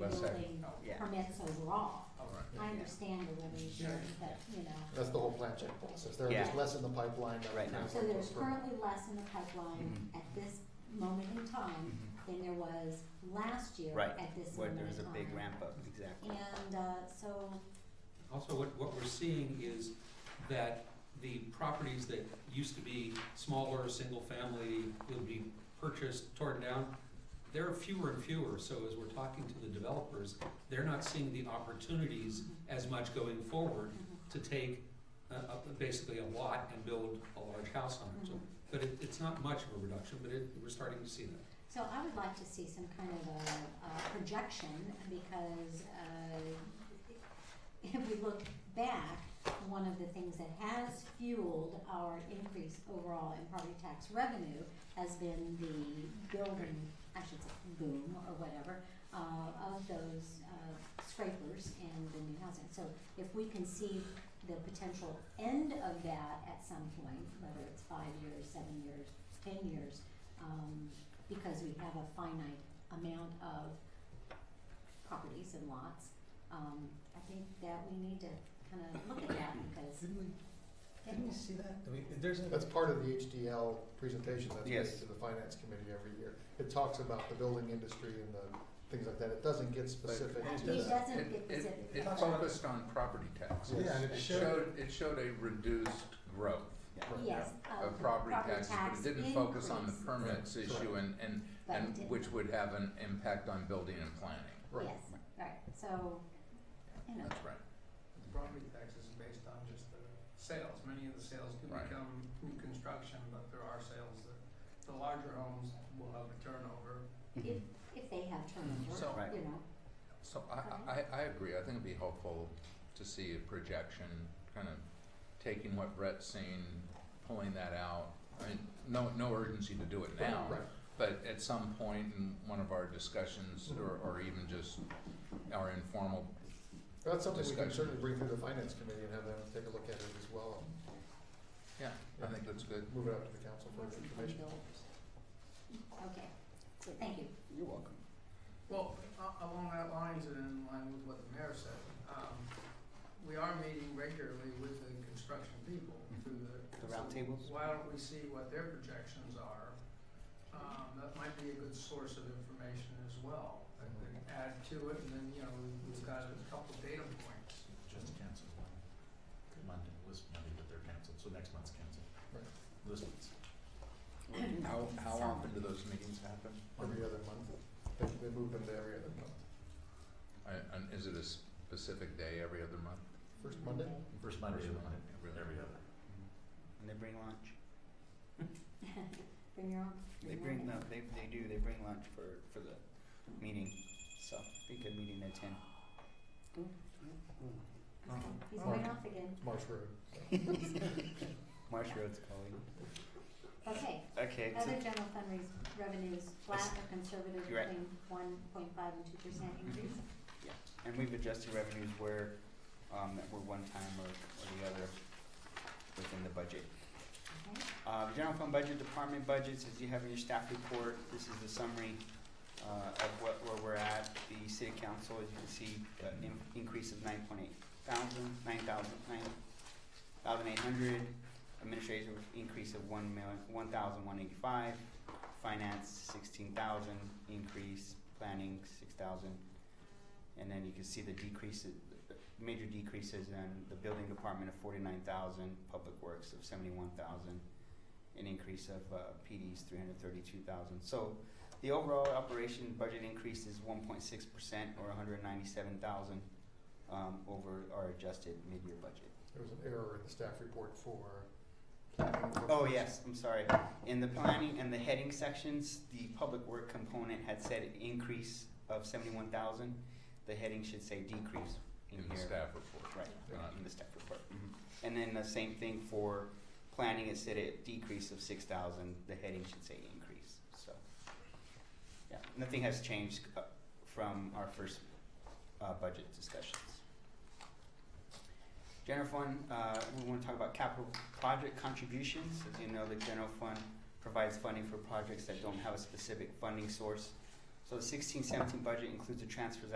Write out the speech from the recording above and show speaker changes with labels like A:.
A: Let's say-
B: building
A: oh,
C: yeah.
B: permits overall.
A: All right.
B: I understand the limitation, but, you know,
D: That's the whole plan check process. There are
C: Yeah.
D: just less in the pipeline. than
C: Right now.
B: so there's currently less in the pipeline
C: Mhm.
B: at this moment in time than there was last year
C: Right,
B: at this
C: Mm-hmm. where
B: moment in time.
C: there's a big ramp up, exactly.
B: And, uh, so,
A: Also, what, what we're seeing is that the properties that used to be smaller, single-family, would be purchased, torn down, there are fewer and fewer, so as we're talking to the developers, they're not seeing the opportunities as much going forward
B: mm-hmm,
A: to take, uh, uh, basically a lot and build a large house on it. So,
B: Mhm.
A: But it, it's not much of a reduction, but it, we're starting to see that.
B: so I would like to see some kind of a, a projection, because, uh, if we look back, one of the things that has fueled our increase overall in property tax revenue has been the building, I should say boom or whatever, uh, of those, uh, scrapers and the new housing. So if we can see the potential end of that at some point, whether it's five years, seven years, ten years, um, because we have a finite amount of properties and lots, um, I think that we need to kind of look at that because.
D: Didn't we, didn't we
B: Yeah.
D: see that? I mean,
E: There's a,
D: That's part of the HDL presentation that's
C: Yes.
D: made to the finance committee every year. It talks about the building industry and the things like that. It doesn't get specific
B: It
D: to
B: doesn't
D: that.
B: get
F: It- it-
B: specific.
F: It
B: That's
F: focused on property taxes.
D: Yeah, and
E: it
F: It
E: showed-
F: showed, it showed a reduced growth
B: Yes, uh,
F: of property taxes, but
B: tax
F: it didn't focus on the
B: increase,
F: permits
D: Right.
F: issue and, and,
B: but it
F: and
B: didn't.
F: which would have an impact on building and planning.
D: Right.
B: Yes, right, so, you know,
F: That's right.
G: The property tax is based on just the sales, many of the sales can
F: Right.
G: become new construction, but there are sales that, the larger homes will have a turnover.
B: if, if they have turnover,
F: So,
C: Right.
B: you know,
F: so I, I, I agree. I think it'd be helpful to see a projection, kind of taking what Brett's saying, pulling that out. I mean, no, no urgency to do it now.
D: Right.
F: But at some point in one of our discussions, or, or even just our informal
D: That's something we can
F: Discussion.
D: certainly bring through the finance committee and have them take a look at it as well.
F: Yeah, I think that's good.
D: Move it up to the council for
B: what's
D: information.
B: Okay, so thank you.
C: You're welcome.
G: Well, a- Uh, along that lines and in line with what the mayor said, um, we are meeting regularly with the construction people through the.
C: The round
G: so
C: tables?
G: Why don't we see what their projections are? Um, that might be a good source of information as well, that could add to it, and then, you know, we- we've got a couple data points.
E: just canceled one. Monday, this Monday, but they're canceled, so next month's canceled.
D: Right.
E: This month's.
F: How, how often do those meetings happen?
D: Every other month. They, they move them to every other month.
F: I- And is it a specific day every other month?
D: First Monday?
E: First Monday of the month,
F: Every
E: every other.
C: Mm-hmm. And they bring lunch.
B: Bring your own.
C: They
B: your
C: bring
B: own.
C: no, they they do. They bring lunch for for the meeting. So be good meeting at ten.
B: Okay, he's
D: Oh.
B: going off again.
D: Marsh Road.
C: Marsh Road's calling.
B: Okay,
C: Okay. so-
B: other general fund raise- revenues, flat or conservative
C: You're right.
B: between one point five and two percent increase?
C: And we've adjusted revenues where, um, that were one time or, or the other within the budget.
B: Okay,
C: Uh, the general fund budget, department budgets, as you have in your staff report, this is the summary, uh, of what, where we're at. The city council, as you can see, uh, in- increase of nine point eight thousand, nine thousand, nine thousand eight hundred. Administrative increase of one million, one thousand one eighty-five. Finance, sixteen thousand, increase, planning, six thousand. And then you can see the decreases, major decreases in the building department of forty-nine thousand, public works of seventy-one thousand, an increase of, uh, PD's three hundred thirty-two thousand. So the overall operation budget increase is one point six percent or hundred ninety-seven thousand, um, over our adjusted mid-year budget.
D: There was an error in the staff report for. planning for-
C: Oh, yes, I'm sorry. In the planning and the heading sections, the public work component had said increase of seventy-one thousand. The heading should say decrease in
F: In
C: here.
F: the staff report?
C: Right,
F: Not-
C: uh, in the staff report. And then the same thing for planning, it said a decrease of six thousand, the heading should say increase, so. Yeah, nothing has changed uh, from our first uh, budget discussions. General fund, uh, we wanna talk about capital project contributions. As you know, the general fund provides funding for projects that don't have a specific funding source. So the sixteen seventeen budget includes a transfers